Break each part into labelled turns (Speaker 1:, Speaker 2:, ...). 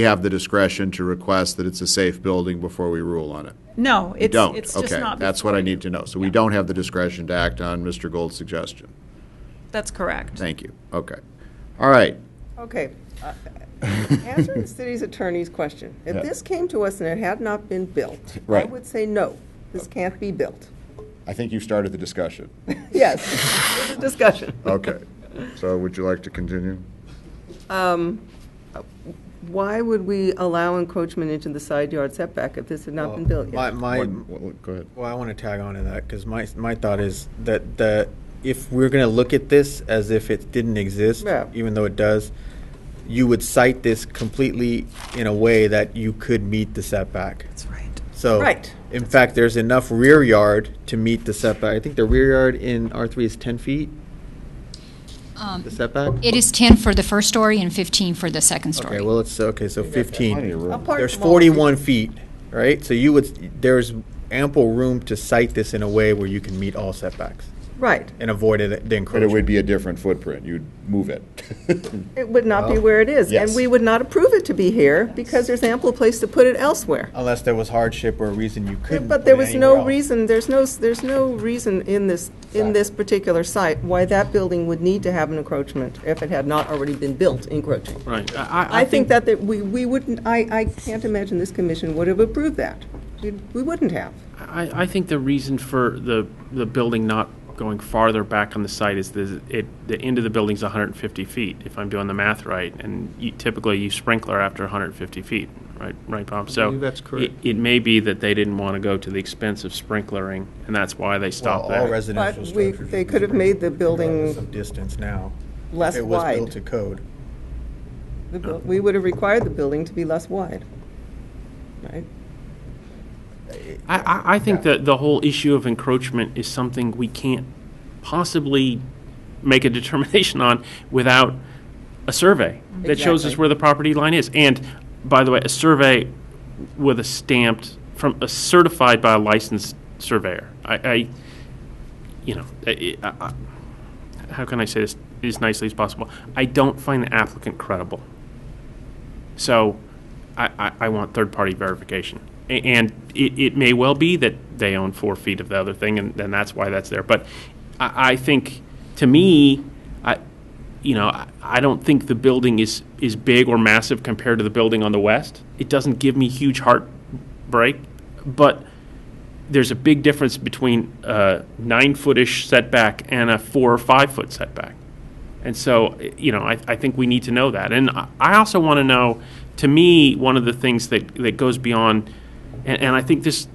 Speaker 1: we have the discretion to request that it's a safe building before we rule on it?
Speaker 2: No,
Speaker 1: We
Speaker 2: it's,
Speaker 1: don't?
Speaker 2: it's just
Speaker 1: Okay,
Speaker 2: not.
Speaker 1: that's
Speaker 2: before
Speaker 1: what I
Speaker 2: you.
Speaker 1: need to know. So we don't have the discretion to act on Mr. Gold's suggestion?
Speaker 2: That's correct.
Speaker 1: Thank you. Okay. All right.
Speaker 3: Okay. uh, Answering the city's attorney's question,
Speaker 1: Yeah.
Speaker 3: if this came to us and it had not been built, I
Speaker 1: Right.
Speaker 3: would say, no, this can't be built.
Speaker 1: I think you started the discussion.
Speaker 3: Yes, it's a discussion.
Speaker 1: Okay. So would you like to continue?
Speaker 3: Why would we allow encroachment into the side yard setback if this had not been built
Speaker 4: My,
Speaker 3: yet?
Speaker 4: my,
Speaker 1: Go ahead.
Speaker 4: well, I want to tag on to that because my, my thought is that, that if we're going to look at this as if it didn't exist,
Speaker 3: Yeah.
Speaker 4: even though it does, you would cite this completely in a way that you could meet the setback.
Speaker 2: That's right.
Speaker 4: So,
Speaker 3: Right.
Speaker 4: in fact, there's enough rear yard to meet the setback. I think the rear yard in R3 is 10 feet,
Speaker 5: Um,
Speaker 4: the setback?
Speaker 5: It is 10 for the first story and 15 for the second story.
Speaker 4: Okay, well, it's, okay, so 15.
Speaker 3: Apart
Speaker 4: There's
Speaker 3: from all the-
Speaker 4: 41 feet, right? So you would, there's ample room to cite this in a way where you can meet all setbacks
Speaker 3: Right.
Speaker 4: and avoid it- the
Speaker 1: But it
Speaker 4: encroachment.
Speaker 1: would be a different footprint. You'd move it.
Speaker 3: It would not be where it is.
Speaker 1: Yes.
Speaker 3: And we would not approve it to be here because there's ample place to put it elsewhere.
Speaker 4: Unless there was hardship or a reason you couldn't.
Speaker 3: But
Speaker 4: put
Speaker 3: there
Speaker 4: it
Speaker 3: was
Speaker 4: anywhere
Speaker 3: no
Speaker 4: else.
Speaker 3: reason, there's no, there's no reason in this, in this particular site why that building would need to have an encroachment if it had not already been built encroaching.
Speaker 6: Right.
Speaker 3: I think that, that we, we wouldn't, I, I can't imagine this commission would have approved that. We we wouldn't have.
Speaker 6: I, I think the reason for the, the building not going farther back on the site is the, it, the end of the building's 150 feet, if I'm doing the math right, and you- typically you sprinkler after 150 feet, right, right, Bob? So
Speaker 7: believe that's correct.
Speaker 6: It, it may be that they didn't want to go to the expense of sprinklering, and that's why they
Speaker 4: Well,
Speaker 6: stopped
Speaker 4: all
Speaker 6: there.
Speaker 3: But
Speaker 4: residential
Speaker 3: we,
Speaker 4: structures.
Speaker 3: they could have made the building
Speaker 4: Some distance now.
Speaker 3: less
Speaker 4: It was built to
Speaker 3: wide.
Speaker 4: code.
Speaker 3: The bu- We would have required the building to be less wide. Right?
Speaker 6: I, I, I think that the whole issue of encroachment is something we can't possibly make a determination on without a survey that shows us
Speaker 3: Exactly.
Speaker 6: where the property line is. And by the way, a survey with a stamped from a certified by a licensed surveyor. I, I you know, I, I, I- how can I say this as nicely as possible? I don't find the applicant credible. So I, I, I want third-party verification. A- And it, it may well be that they own four feet of the other thing, and then that's why that's there. But I, I think, to me, I, you know, I, I don't think the building is, is big or massive compared to the building on the west. It doesn't give me huge heartbreak, but there's a big difference between a nine-foot-ish setback and a four or five-foot setback. And so, i- you know, I, I think we need to know that. And I- I also want to know, to me, one of the things that, that goes beyond, and, and I think this,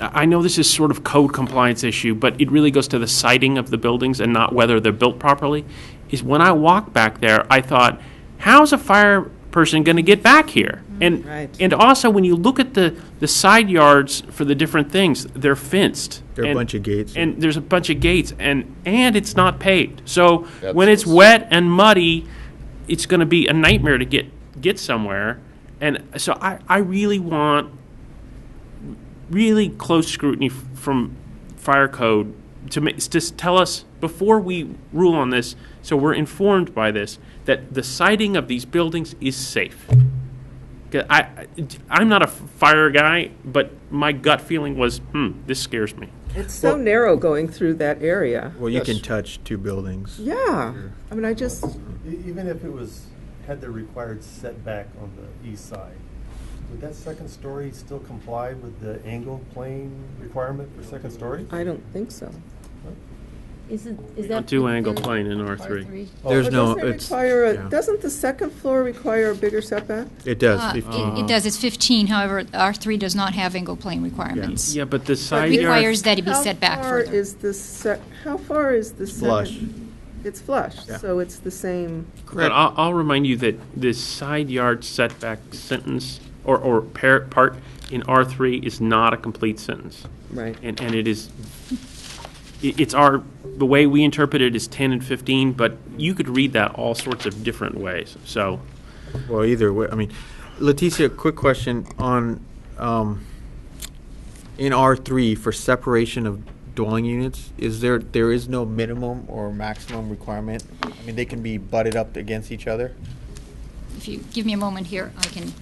Speaker 6: I I know this is sort of code compliance issue, but it really goes to the siting of the buildings and not whether they're built properly, is when I walked back there, I thought, how's a fire person going to get back here? And,
Speaker 3: Right.
Speaker 6: and also, when you look at the, the side yards for the different things, they're fenced.
Speaker 4: There are a
Speaker 6: And-
Speaker 4: bunch of gates.
Speaker 6: And there's a bunch of gates, and, and it's not paved. So when
Speaker 1: That's-
Speaker 6: it's wet and muddy, it's going to be a nightmare to get, get somewhere. And so I, I really want really close scrutiny f- from fire code to ma- just tell us before we rule on this, so we're informed by this, that the siding of these buildings is safe. 'Cause I, I, am not a f- fire guy, but my gut feeling was, hmm, this scares me.
Speaker 3: It's so narrow going through that area.
Speaker 4: Well, you can touch two buildings.
Speaker 3: Yeah. I mean, I just,
Speaker 8: E- Even if it was, had the required setback on the east side, would that second story still comply with the angle plane requirement for second story?
Speaker 3: I don't think so.
Speaker 9: Isn't,
Speaker 6: Don't
Speaker 9: is that?
Speaker 6: do angle plane in R3.
Speaker 4: There's
Speaker 3: But
Speaker 4: no,
Speaker 3: doesn't it
Speaker 4: it's,
Speaker 3: require a-
Speaker 4: yeah.
Speaker 3: Doesn't the second floor require a bigger setback?
Speaker 4: it does.
Speaker 5: Uh,
Speaker 4: 15.
Speaker 5: It it does, it's 15, however, R3 does not have angle plane requirements.
Speaker 6: Yeah, but the side
Speaker 5: It
Speaker 6: yard.
Speaker 5: requires that it be
Speaker 3: How
Speaker 5: set back
Speaker 3: far
Speaker 5: further.
Speaker 3: is the se- how far is the second?
Speaker 4: flush.
Speaker 3: It's flush,
Speaker 4: Yeah.
Speaker 3: so it's the same.
Speaker 6: But I'll, I'll remind you that this side yard setback sentence or, or par- part in R3 is not a complete sentence.
Speaker 3: Right.
Speaker 6: And, and it is, it- it's our, the way we interpret it is 10 and 15, but you could read that all sorts of different ways. So
Speaker 4: Well, either way, I mean, Leticia, quick question on, um, in R three for separation of dwelling units, is there, there is no minimum or maximum requirement? I mean, they can be butted up against each other?
Speaker 5: If you give me a moment here, I can